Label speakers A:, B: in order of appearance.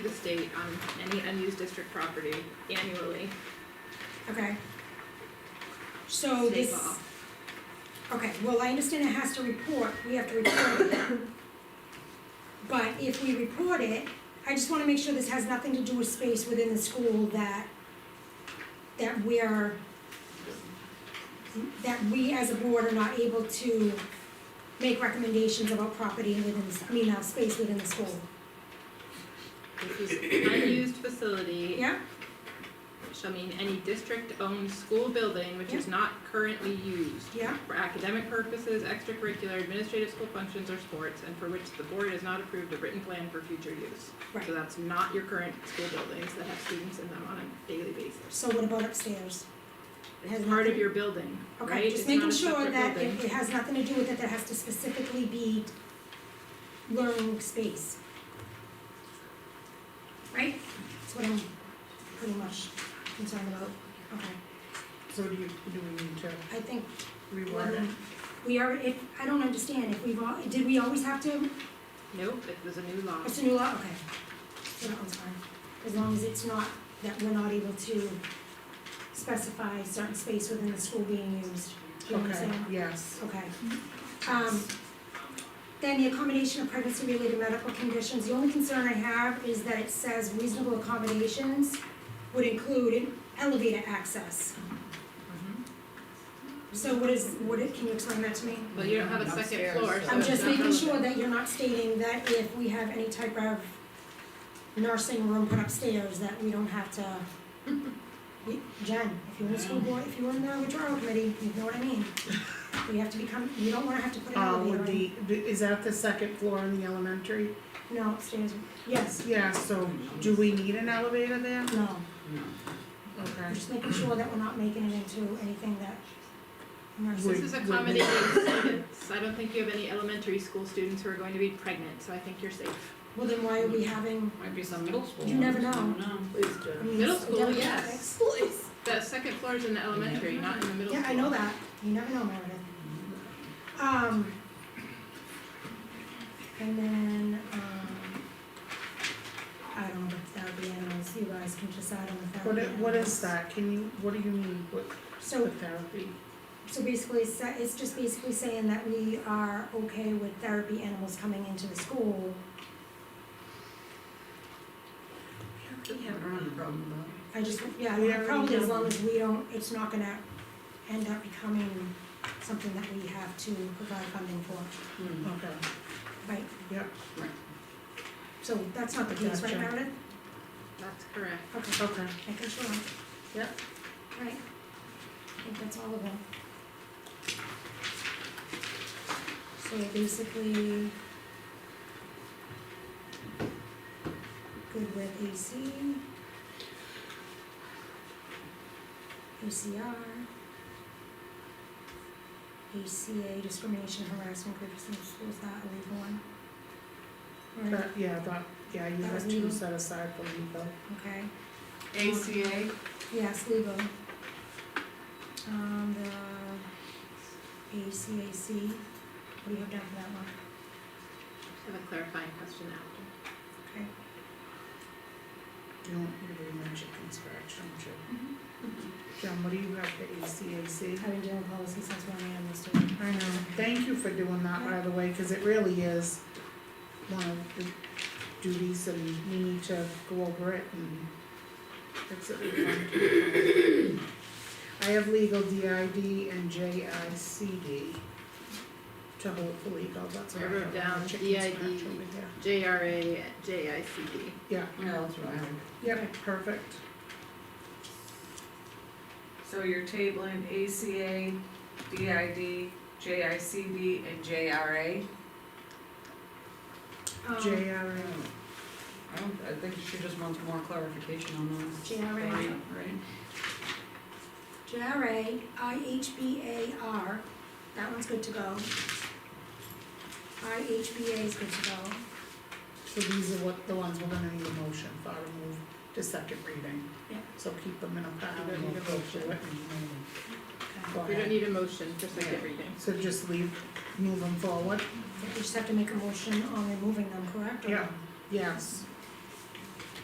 A: the state on any unused district property annually,
B: Okay.
A: state
B: So Oh, this,
A: law.
B: okay, well, I understand it has to report, we have to report it. But if we report it, I just wanna make sure this has nothing to do with space within the school that, that we are, that we as a board are not able to make recommendations about property within, the s- I mean, uh, space within the school,
A: This is unused facility
B: yeah?
A: shall mean any district-owned school building which is not currently used
B: Yeah.
A: for academic purposes, extracurricular, administrative school functions, or sports, and for which the board has not approved a written plan for future use.
B: Right.
A: So that's not your current school buildings that have students in them on a daily basis.
B: So what about upstairs? It has
A: It's part of
B: nothing-
A: your building, right?
B: Okay, just
A: It's not
B: making
A: a
B: sure
A: separate
B: that
A: building.
B: it, it has nothing to do with it, that has to specifically be learning space. Right? That's what I'm pretty much concerned about, okay,
C: So do you, do we need to
B: I think um,
C: reword
B: Mm-hmm.
C: it?
B: we are, if, I don't understand, if we've all, did we always have to,
A: Nope, it was a new law.
B: it's a new law, okay. So that one's fine, as long as it's not, that we're not able to specify certain space within the school being used, do you know what I'm
C: Okay,
B: saying?
C: yes.
B: Okay. Um, then the accommodation of pregnancy-related medical conditions, the only concern I have is that it says reasonable accommodations would include an elevator access.
A: Mhm.
B: Mm-hmm. So what is, what is, can you explain that to me?
A: But you don't have a second
C: Upstairs,
A: floor,
C: so-
A: so
B: I'm
A: it's
B: just
A: not
B: making sure
A: relevant.
B: that you're not stating that if we have any type of nursing room put upstairs, that we don't have to. We- Jen, if you're in the school board, if you're in the withdrawal committee, you know what I mean. We have to become, you don't wanna have to put an
C: Um,
B: elevator in.
C: would the, is that the second floor in the elementary?
B: No, upstairs, yes,
C: Yeah, so do we need an elevator there?
B: no, I'm
C: Okay.
B: just making sure that we're not making it into anything that
A: This
B: nurses,
A: is
C: Would- would-
A: accommodating students. I don't think you have any elementary school students who are going to be pregnant, so I think you're safe.
B: well, then why are we having,
D: Might be some middle school.
B: You never
D: ones,
B: know.
D: I don't know.
E: Please
B: I
E: do.
B: mean,
A: Middle
B: it's
A: school,
B: demographics.
A: yes. The second floor is in the elementary, not in the middle school.
B: Yeah, I know that, you never know, Meredith. Um. And then, um, I don't know if that would be animals, you guys can decide on if that would
C: What,
B: be
C: i- what is
B: animals.
C: that? Can you, what do you mean with
B: So
C: with therapy?
B: So basically, it's sa- it's just basically saying that we are okay with therapy animals coming into the school.
D: We haven't run the problem
B: I just, yeah,
C: We already
B: probably as
C: know.
B: long as we don't, it's not gonna end up becoming something that we have to provide funding for,
D: though.
C: Okay,
B: right?
C: Yeah.
D: Hmm. Right.
B: So that's not the case, right,
C: Gotcha.
B: Meredith?
A: That's correct.
B: Okay,
C: okay.
B: making sure.
C: Yeah.
B: Right. I think that's all of them. So basically. Good with AC. ACR. ACA discrimination harassment groups in schools, that a legal one? Right,
C: That, yeah, that, yeah, you
B: That was
C: have two
B: legal.
C: set aside for legal.
B: okay.
D: ACA?
B: Yes, legal. Um, the ACAC, what do you have down for that one?
A: I have a clarifying question after.
B: Okay,
C: You don't need to be much of construction, too.
B: Mm-hmm.
C: John, what do you have for ACAC?
B: I've been doing policy since one AM this year.
C: I know, thank you for doing that, by the way, cause it really is one of the duties and we need to go over it and fix it. when we come to it. I have legal DID and JICD to hopefully go, that's what I
A: I
C: have.
A: wrote down
C: Check
A: DID.
C: construction over there.
A: JRA, JICD.
D: Yeah, that's what I heard.
C: Yep, perfect.
F: So you're tabling ACA, DID, JICD, and JRA?
B: Um,
C: JRA,
D: I don't, I think she just wants more clarification on those.
B: JRA.
D: Right, Right?
B: JRA, IHBAR, that one's good to go. IHBA is good to go.
C: so these are what, the ones we're gonna need a motion for, remove to second reading.
B: Yeah.
C: So keep them in a pile
A: don't
C: and we'll
A: need a
C: go through it
A: motion.
C: and, um,
B: Okay.
C: go
A: We
C: ahead.
A: don't need a motion for second
D: Yeah.
A: reading.
C: So just leave, move them forward?
B: We just have to make a motion on removing them, correct? or-
C: Yes.